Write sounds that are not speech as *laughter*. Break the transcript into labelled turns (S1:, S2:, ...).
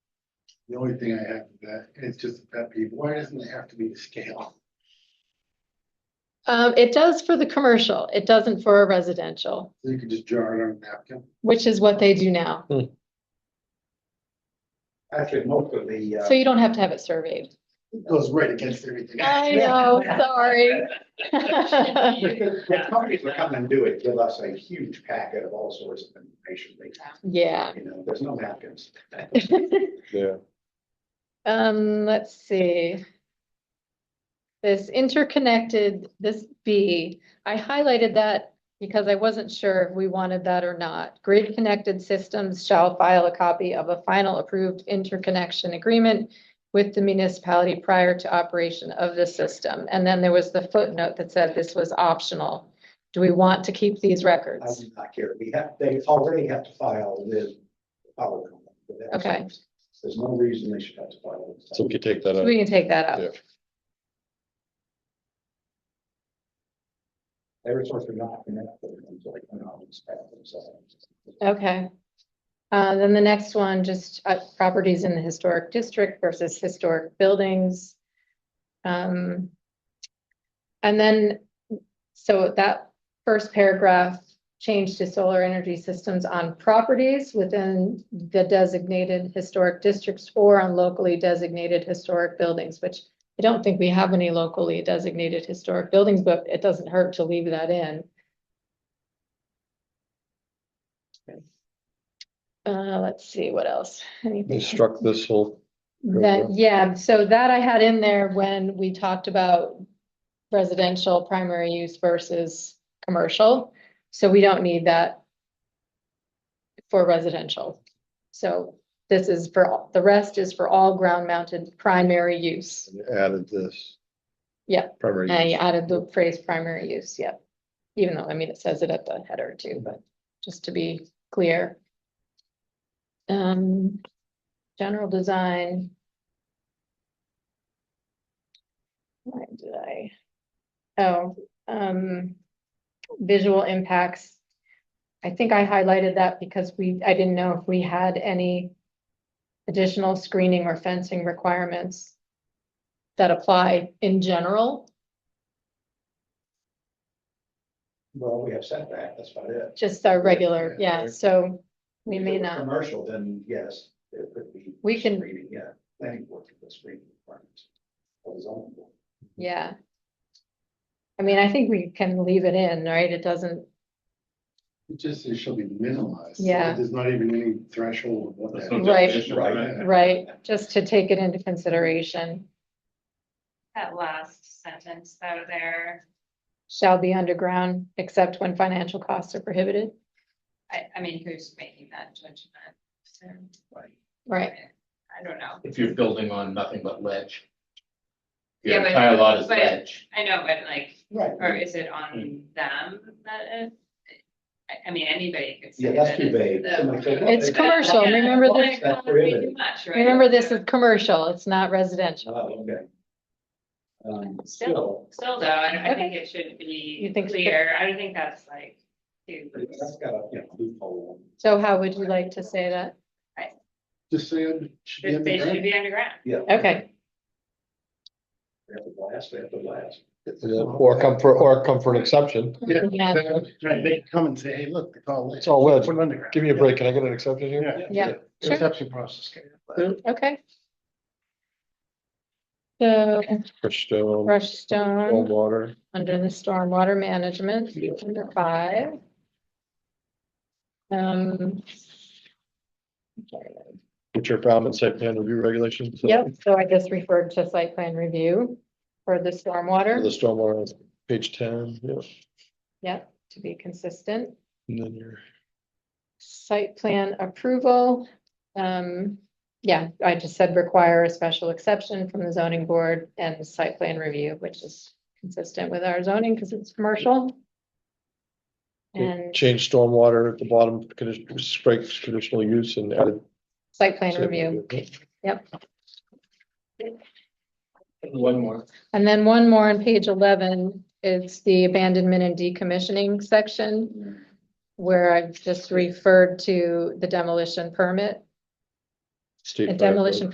S1: The only thing I have with that, and it's just a pet peeve, why doesn't it have to be to scale?
S2: Um, it does for the commercial, it doesn't for a residential,
S1: So You could just jar it on a napkin.
S2: which is what they do now.
S3: Actually, most of the, uh,
S2: So you don't have to have it surveyed.
S1: It goes right against everything.
S2: I know, sorry. *laughs*
S3: the the companies that come and do it give us a huge packet of all sorts of information. They,
S2: Yeah,
S3: you know, there's no napkins.
S4: Yeah,
S2: um, let's see. This interconnected, this B, I highlighted that because I wasn't sure if we wanted that or not. Grid connected systems shall file a copy of a final approved interconnection agreement with the municipality prior to operation of the system. And then there was the footnote that said this was optional. Do we want to keep these
S3: I
S2: records?
S3: do not care. We have, they already have to file with the power company. for that.
S2: Okay.
S3: There's no reason they should have to file. it.
S4: so we could take that out.
S2: We can take that out.
S4: Yeah.
S3: They were sort of not connected until they come out and inspect themselves.
S2: Okay. Uh, then the next one, just uh, properties in the historic district versus historic buildings. Um. And then, so that first paragraph changed to solar energy systems on properties within the designated historic districts or on locally designated historic buildings, which I don't think we have any locally designated historic buildings, but it doesn't hurt to leave that in. Uh, let's see, what else?
S4: We
S2: Anything?
S4: struck this whole,
S2: That, yeah, so that I had in there when we talked about residential primary use versus commercial. So we don't need that for residential. So this is for, all the rest is for all ground mounted primary use.
S4: added
S2: Uh,
S4: this.
S2: Yeah.
S4: Primary.
S2: And I
S4: use.
S2: added the phrase primary use, yep. Even though, I mean, it says it at the header too, but just to be clear. Um, general design. Why did I? Oh, um, visual impacts. I think I highlighted that because we, I didn't know if we had any additional screening or fencing requirements that apply in general.
S3: Well, we have setback, that's about it.
S2: Just our regular, yeah,
S3: yeah.
S2: so we
S3: If
S2: may
S3: it were
S2: not,
S3: Commercial, then yes, it could be.
S2: We can-
S3: Screening, yeah, planning board for the screening requirements. Of the zoning board.
S2: yeah. I mean, I think we can leave it in, right? It doesn't,
S1: It just, it shall be minimized. so
S2: Yeah.
S1: There's not even any threshold of what
S5: There's
S1: that.
S5: no
S1: is.
S2: Right.
S5: definition,
S3: Right.
S2: right, just to take it into consideration,
S6: That last sentence though there,
S2: shall be underground except when financial costs are prohibited,
S6: I, I mean, who's making that judgment? So,
S2: right?
S6: I don't know.
S5: If you're building on nothing but ledge.
S6: Yeah,
S5: Your
S6: but-
S5: entire lot is
S6: but-
S5: ledge.
S6: I know, but like,
S3: Right.
S6: or is it on them that it? I, I mean, anybody could say
S3: Yeah,
S6: that.
S3: that's too
S6: it's
S3: vague.
S6: the-
S3: Somebody said,
S2: It's
S3: "Oh,
S2: commercial,
S6: Yeah.
S2: remember this,
S3: That's
S6: Pretty
S3: prohibited.
S6: much, right?
S2: remember this is commercial, it's not residential.
S3: Oh, okay. Um,
S6: Still.
S3: still,
S6: Still though, I, I think it should be
S2: You think so?
S6: clear. I don't think that's like. too-
S3: that's got a, you know, loophole.
S2: So how would you like to say that?
S1: Just say it should be.
S6: They should
S1: underground.
S6: be underground.
S3: Yeah.
S2: Okay,
S3: They have to blast, they have to blast.
S4: Yeah, Or come for, or come for an exception.
S1: Yeah,
S2: Yeah.
S1: exactly. Right, they can come and say, hey, look, it's all.
S4: It's all ledge.
S1: Put it underground.
S4: Give me a break. Can I get an exception here?
S1: Yeah.
S2: yeah, Sure.
S1: Perception process.
S2: okay. So
S4: Crushed stone,
S2: crushed stone.
S4: cold water.
S2: Under the stormwater management, under five. Um.
S4: which are found in site plan review regulations.
S2: Yep, so I just referred to site plan review for the
S4: For The
S2: stormwater,
S4: stormwater, page ten, yeah,
S2: yep, to be consistent.
S4: and then your
S2: Site plan approval, um, yeah, I just said require a special exception from the zoning board and the site plan review, which is consistent with our zoning because it's commercial. And
S4: change stormwater at the bottom, condition, strike traditional use and added.
S2: site plan review.
S5: One more.
S2: And then one more on page eleven, it's the abandonment and decommissioning section. Where I've just referred to the demolition permit.
S4: State
S2: A
S4: fire code.
S2: demolition